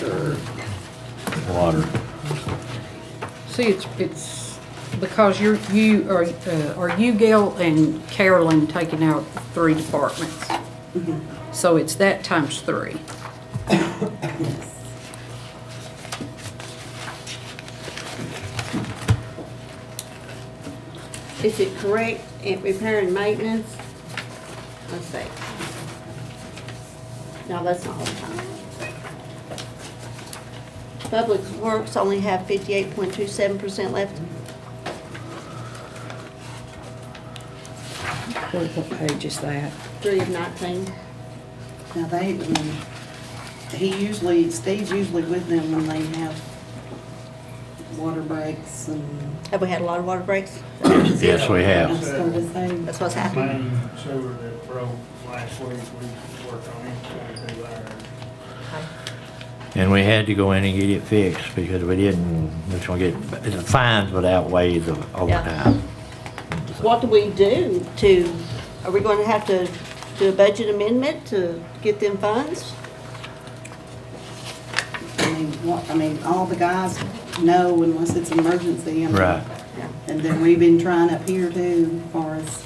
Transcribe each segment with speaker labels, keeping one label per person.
Speaker 1: Or-
Speaker 2: Water.
Speaker 1: See, it's, it's because you're, you, are, uh, are you, Gail, and Carolyn taking out three departments?
Speaker 3: Mm-hmm.
Speaker 1: So it's that times three.
Speaker 4: Is it correct at repair and maintenance? Let's see. No, that's not all the time. Public Works only have fifty-eight point two seven percent left.
Speaker 3: What, what page is that?
Speaker 4: Three of nineteen.
Speaker 5: Now they, um, he usually, Steve's usually with them when they have water breaks and.
Speaker 4: Have we had a lot of water breaks?
Speaker 2: Yes, we
Speaker 5: I
Speaker 2: have.
Speaker 5: was gonna say,
Speaker 4: That's what's happening.
Speaker 6: Main sewer that broke last week, we worked on it, trying to do our,
Speaker 2: And we had to go in and get it fixed because we didn't, we was gonna get, the fines would outweigh the overtime.
Speaker 4: What do we do to, are we going to have to do a budget amendment to get them funds?
Speaker 5: I mean, what, I mean, all the guys know unless it's an emergency. and-
Speaker 2: Right.
Speaker 5: And then we've been trying up here too, as far as,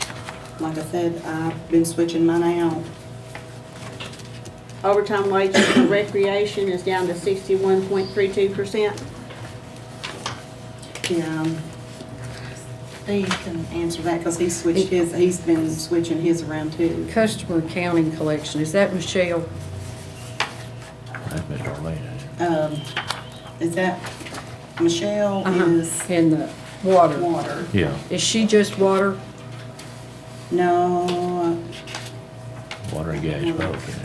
Speaker 5: like I said, I've been switching mine out.
Speaker 4: Overtime wages for recreation is down to sixty-one point three two percent.
Speaker 5: Yeah. um, Steve can answer that because he switched his, he's been switching his around too.
Speaker 1: Customer accounting collection, is that Michelle?
Speaker 2: That's Mr. Orlean.
Speaker 5: Um, is that, Michelle is
Speaker 1: Uh-huh. And the water.
Speaker 5: water.
Speaker 2: Yeah,
Speaker 1: Is she just water?
Speaker 5: No,
Speaker 2: water and gas both.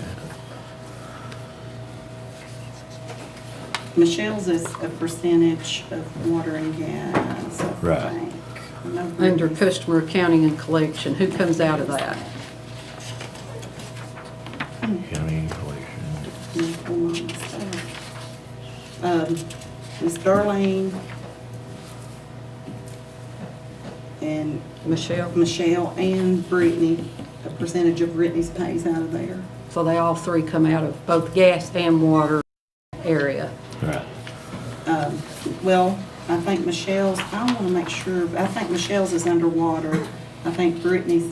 Speaker 5: Michelle's is a percentage of water and gas, I
Speaker 2: Right.
Speaker 5: think. No,
Speaker 1: Under customer accounting and collection, who comes out of that?
Speaker 2: yeah. County collection.
Speaker 5: Um, Ms. Darlene and
Speaker 1: Michelle?
Speaker 5: Michelle and Brittany, a percentage of Brittany's pays out of there.
Speaker 1: So they all three come out of both gas and water area.
Speaker 2: Right.
Speaker 5: Um, Well, I think Michelle's, I want to make sure, I think Michelle's is underwater. I think Brittany's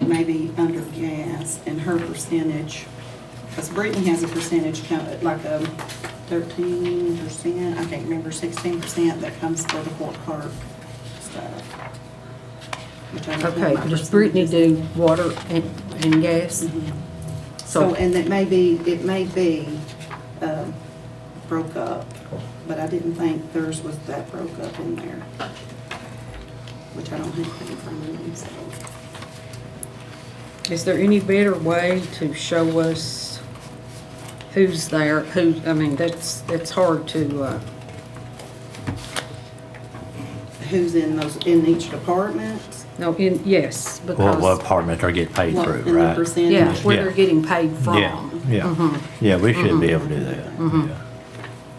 Speaker 5: maybe under gas and her percentage, because Brittany has a percentage, kind of like a thirteen percent, I can't remember, sixteen percent that comes for the Fort Park stuff. which I don't have
Speaker 1: Okay,
Speaker 5: my
Speaker 1: does Brittany
Speaker 5: percentages.
Speaker 1: do water and, and gas?
Speaker 5: So,
Speaker 1: So,
Speaker 5: and it may be, it may be um, broke up, but I didn't think theirs was that broke up in there, which I don't have in front of me, so.
Speaker 1: is there any better way to show us who's there, who, I mean, that's, that's hard to, uh,
Speaker 5: Who's in those, in each department?
Speaker 1: no, in, yes,
Speaker 2: What, what
Speaker 1: because,
Speaker 2: apartment are getting paid
Speaker 5: what-
Speaker 2: through,
Speaker 5: And the
Speaker 2: right?
Speaker 1: yeah,
Speaker 5: percentage?
Speaker 1: where they're
Speaker 2: Yeah.
Speaker 1: getting paid
Speaker 2: Yeah,
Speaker 1: from, Mm-hmm.
Speaker 2: yeah. Yeah, we should be able to do that. Yeah.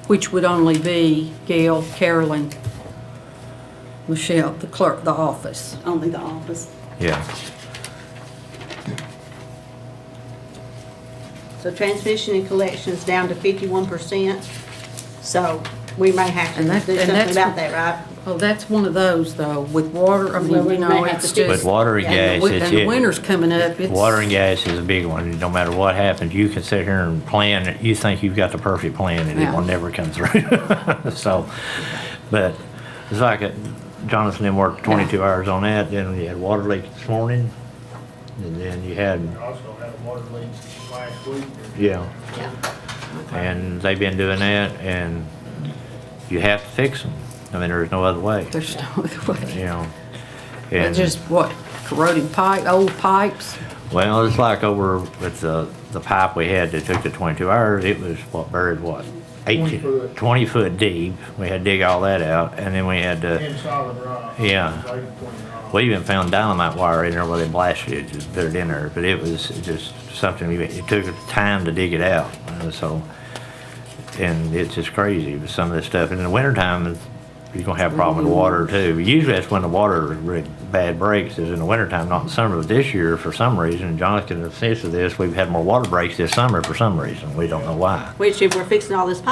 Speaker 1: which would only be Gail, Carolyn, Michelle, the clerk, the office.
Speaker 5: Only the office.
Speaker 2: Yeah.
Speaker 4: So transmission and collections down to fifty-one percent, so we may have to
Speaker 1: And that-
Speaker 4: do
Speaker 1: and
Speaker 4: something
Speaker 1: that's-
Speaker 4: about that, right?
Speaker 1: Well, that's one of those, though, with water, I mean,
Speaker 4: Well, we
Speaker 1: you know,
Speaker 4: may have
Speaker 1: it's
Speaker 4: to do-
Speaker 2: But
Speaker 1: just,
Speaker 2: water and
Speaker 4: Yeah,
Speaker 2: gas,
Speaker 1: and
Speaker 2: it's
Speaker 1: the
Speaker 2: it.
Speaker 1: winter's coming up, it's.
Speaker 2: Water and gas is a big one. No matter what happens, you can sit here and plan, you think you've got the perfect plan and it will
Speaker 1: Yeah.
Speaker 2: never come through. So, but it's like it- Jonathan then worked 22 hours on that, then you had water leak this morning. And then you had,
Speaker 6: we also had a water leak last week.
Speaker 2: yeah,
Speaker 4: Yeah.
Speaker 2: and they've been doing that and you have to fix them. I mean, there's no other way,
Speaker 1: There's no other way.
Speaker 2: you know.
Speaker 1: But
Speaker 2: And-
Speaker 1: Just what, corroded pipe, old pipes?
Speaker 2: Well, it's like over with the, the pipe we had that took the twenty-two hours, it was what buried what?
Speaker 6: 20
Speaker 2: Eighteen,
Speaker 6: foot.
Speaker 2: twenty foot deep. We had to dig all that out and then we had to,
Speaker 6: In solid rock.
Speaker 2: Yeah.
Speaker 6: Laid between rock.
Speaker 2: we even found dynamite wire in there where they blasted it, just put it in there, but it was just something, you- it took time to dig it out, uh, so. And it's just crazy with some of this stuff. And In the wintertime, you're gonna have a problem with water too. Usually that's when the water really bad breaks is in the wintertime, not in summer. But this year, for some reason, and John can attest to this, we've had more water breaks this summer for some reason. We don't know why.
Speaker 4: Which if we're fixing all this pipe